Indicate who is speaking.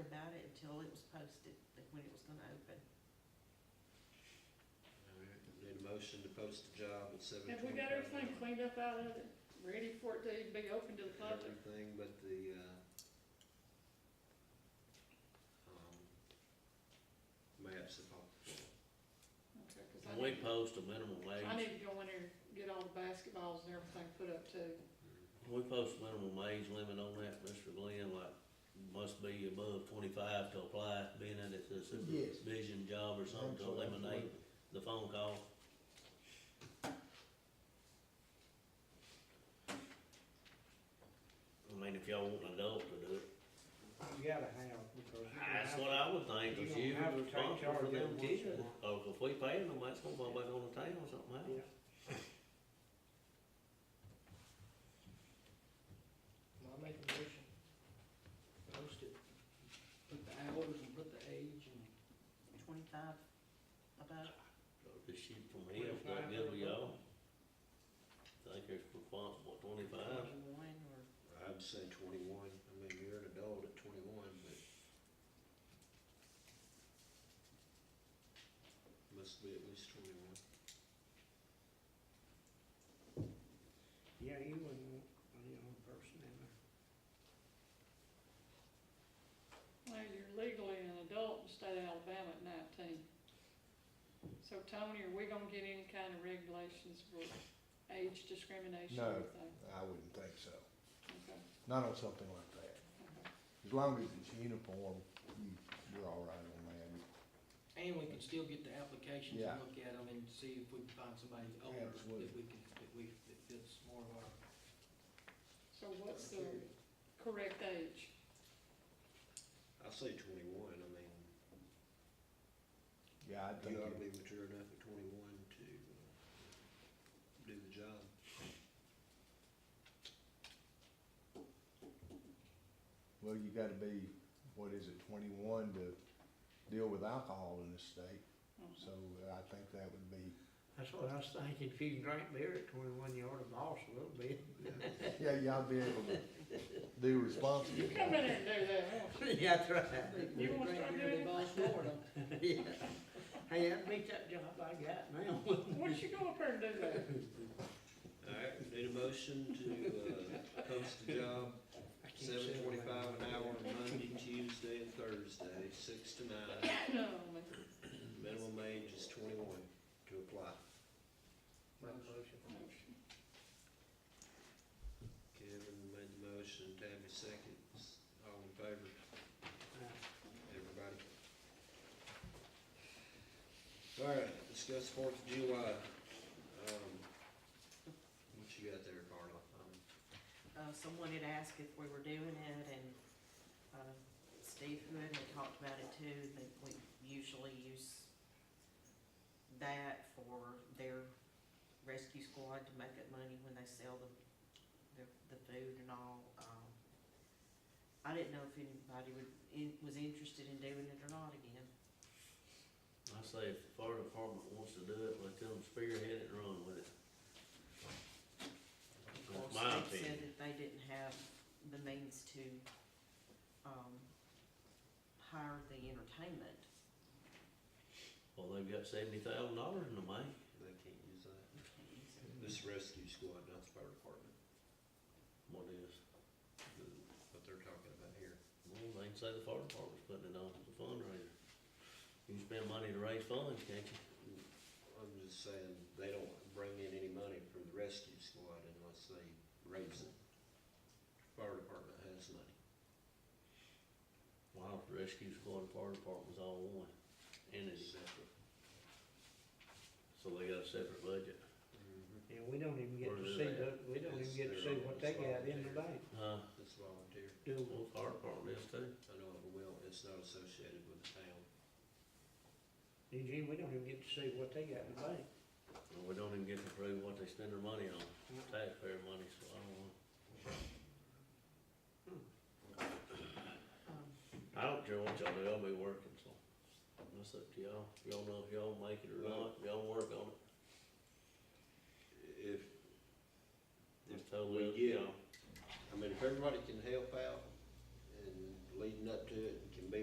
Speaker 1: about it until it was posted, like when it was gonna open.
Speaker 2: Need a motion to post the job at seven
Speaker 3: Have
Speaker 2: twenty-five.
Speaker 3: we got everything cleaned up out of it, ready for it to be open to the public?
Speaker 2: Everything but the, uh, um, maps that pop the floor.
Speaker 3: Okay, 'cause I
Speaker 4: Can we
Speaker 3: need-
Speaker 4: post a minimum
Speaker 3: I
Speaker 4: wage?
Speaker 3: need to go in there, get all the basketballs and everything put up too.
Speaker 4: Can we post a minimum wage limit on that, Mr. Glenn, like, must be above twenty-five to apply, being that it's a
Speaker 5: Yes.
Speaker 4: supervision job or something, to eliminate the phone call? I mean, if y'all want an adult to do it,
Speaker 6: You gotta have, because. you don't
Speaker 4: that's
Speaker 6: have-
Speaker 4: what I would think,
Speaker 6: you
Speaker 4: if
Speaker 6: don't
Speaker 4: you
Speaker 6: have
Speaker 4: were
Speaker 6: to take
Speaker 4: responsible for
Speaker 6: charge
Speaker 4: them
Speaker 6: of it once
Speaker 4: kids,
Speaker 6: in a while.
Speaker 4: or if we pay them, that's gonna go back on the town somehow.
Speaker 6: Yeah.
Speaker 7: Well, I make a motion, post it, put the hours and put the age and.
Speaker 1: Twenty-five above,
Speaker 4: This shit from here, it's not good with y'all. Think it's responsible twenty-five.
Speaker 1: twenty-one, or,
Speaker 2: I'd say twenty-one, I mean, you're an adult at twenty-one, but must be at least twenty-one.
Speaker 6: Yeah, you wouldn't want a young person in there.
Speaker 3: Well, you're legally an adult in the state of Alabama at nineteen. So Tony, are we gonna get any kind of regulations for age discrimination or
Speaker 5: No.
Speaker 3: anything?
Speaker 5: I wouldn't think so,
Speaker 3: Okay,
Speaker 5: not on something like that.
Speaker 3: okay.
Speaker 5: As long as it's uniform, you, you're all right on that,
Speaker 7: And we can still get the applications
Speaker 5: Yeah.
Speaker 7: and look at them and see if we can find somebody older,
Speaker 5: Absolutely.
Speaker 7: that we can, that we, that fits more of our.
Speaker 3: So what's the correct age?
Speaker 2: I say twenty-one, I mean,
Speaker 5: yeah, I think,
Speaker 2: you ought to be
Speaker 5: it-
Speaker 2: mature enough at twenty-one to uh, do the job.
Speaker 5: well, you gotta be, what is it, twenty-one to deal with alcohol in this state,
Speaker 3: Mhm.
Speaker 5: so I think that would be,
Speaker 6: That's what I was thinking, if you can drink beer at twenty-one, you ought to boss a little bit.
Speaker 5: yeah, y'all be able to be responsible.
Speaker 3: You come in there and do that, won't you?
Speaker 6: Yeah, that's right.
Speaker 3: You wanna start doing it?
Speaker 6: Hey, I beat that job I got now.
Speaker 3: Why don't you go up there and do that?
Speaker 2: Alright, need a motion to, uh, post the job,
Speaker 6: I can't
Speaker 2: seven
Speaker 6: say it like
Speaker 2: twenty-five an
Speaker 6: that.
Speaker 2: hour, Monday, Tuesday, and Thursday, six to nine.
Speaker 3: No, man.
Speaker 2: Minimum age is twenty-one to apply.
Speaker 6: Make a motion.
Speaker 3: Motion.
Speaker 2: Kevin made the motion, Tabby seconds, all in favor, everybody. Alright, discuss Fourth of July, um, what you got there, Carla? Um,
Speaker 1: uh, someone had asked if we were doing it, and, uh, Steve Hood had talked about it too, that we usually use that for their rescue squad to make up money when they sell the, the, the food and all, um. I didn't know if anybody would, in, was interested in doing it or not again.
Speaker 4: I say if the fire department wants to do it, let them spearhead it and run with it. That's my
Speaker 1: They said
Speaker 4: opinion.
Speaker 1: that they didn't have the means to, um, hire the entertainment.
Speaker 4: Well, they've got seventy thousand dollars in the bank.
Speaker 2: They can't use that. This rescue squad, not the fire department,
Speaker 4: What is,
Speaker 2: the- what they're talking about here.
Speaker 4: well, they can say the fire department's putting it on as a fundraiser. You can spend money to raise funds, can't you?
Speaker 2: I'm just saying, they don't bring in any money from the rescue squad unless they raise it. Fire department has money.
Speaker 4: Why don't the rescue squad and fire department's all one
Speaker 2: It's
Speaker 4: entity?
Speaker 2: separate.
Speaker 4: So they got a separate budget.
Speaker 6: And we don't even get
Speaker 4: Or
Speaker 6: to
Speaker 4: do
Speaker 6: see,
Speaker 4: they?
Speaker 6: the- we don't even
Speaker 2: It's
Speaker 6: get to
Speaker 2: their
Speaker 6: see
Speaker 2: own
Speaker 6: what they got in the
Speaker 2: responsibility.
Speaker 6: bank,
Speaker 4: Uh,
Speaker 2: It's volunteer.
Speaker 6: do we?
Speaker 4: well, fire department is too.
Speaker 2: I know it will, it's not associated with the town.
Speaker 6: Eugene, we don't even get to see what they got in the bank.
Speaker 4: Well, we don't even get to prove what they spend their money on, taxpayer money, so I don't know.
Speaker 1: Um,
Speaker 4: I don't care what y'all do, I'll be working, so that's up to y'all. Y'all know if y'all make it or not, y'all work on it.
Speaker 2: If,
Speaker 4: It's
Speaker 2: we
Speaker 4: totally up to
Speaker 2: get-
Speaker 4: y'all.
Speaker 2: I mean, if everybody can help out,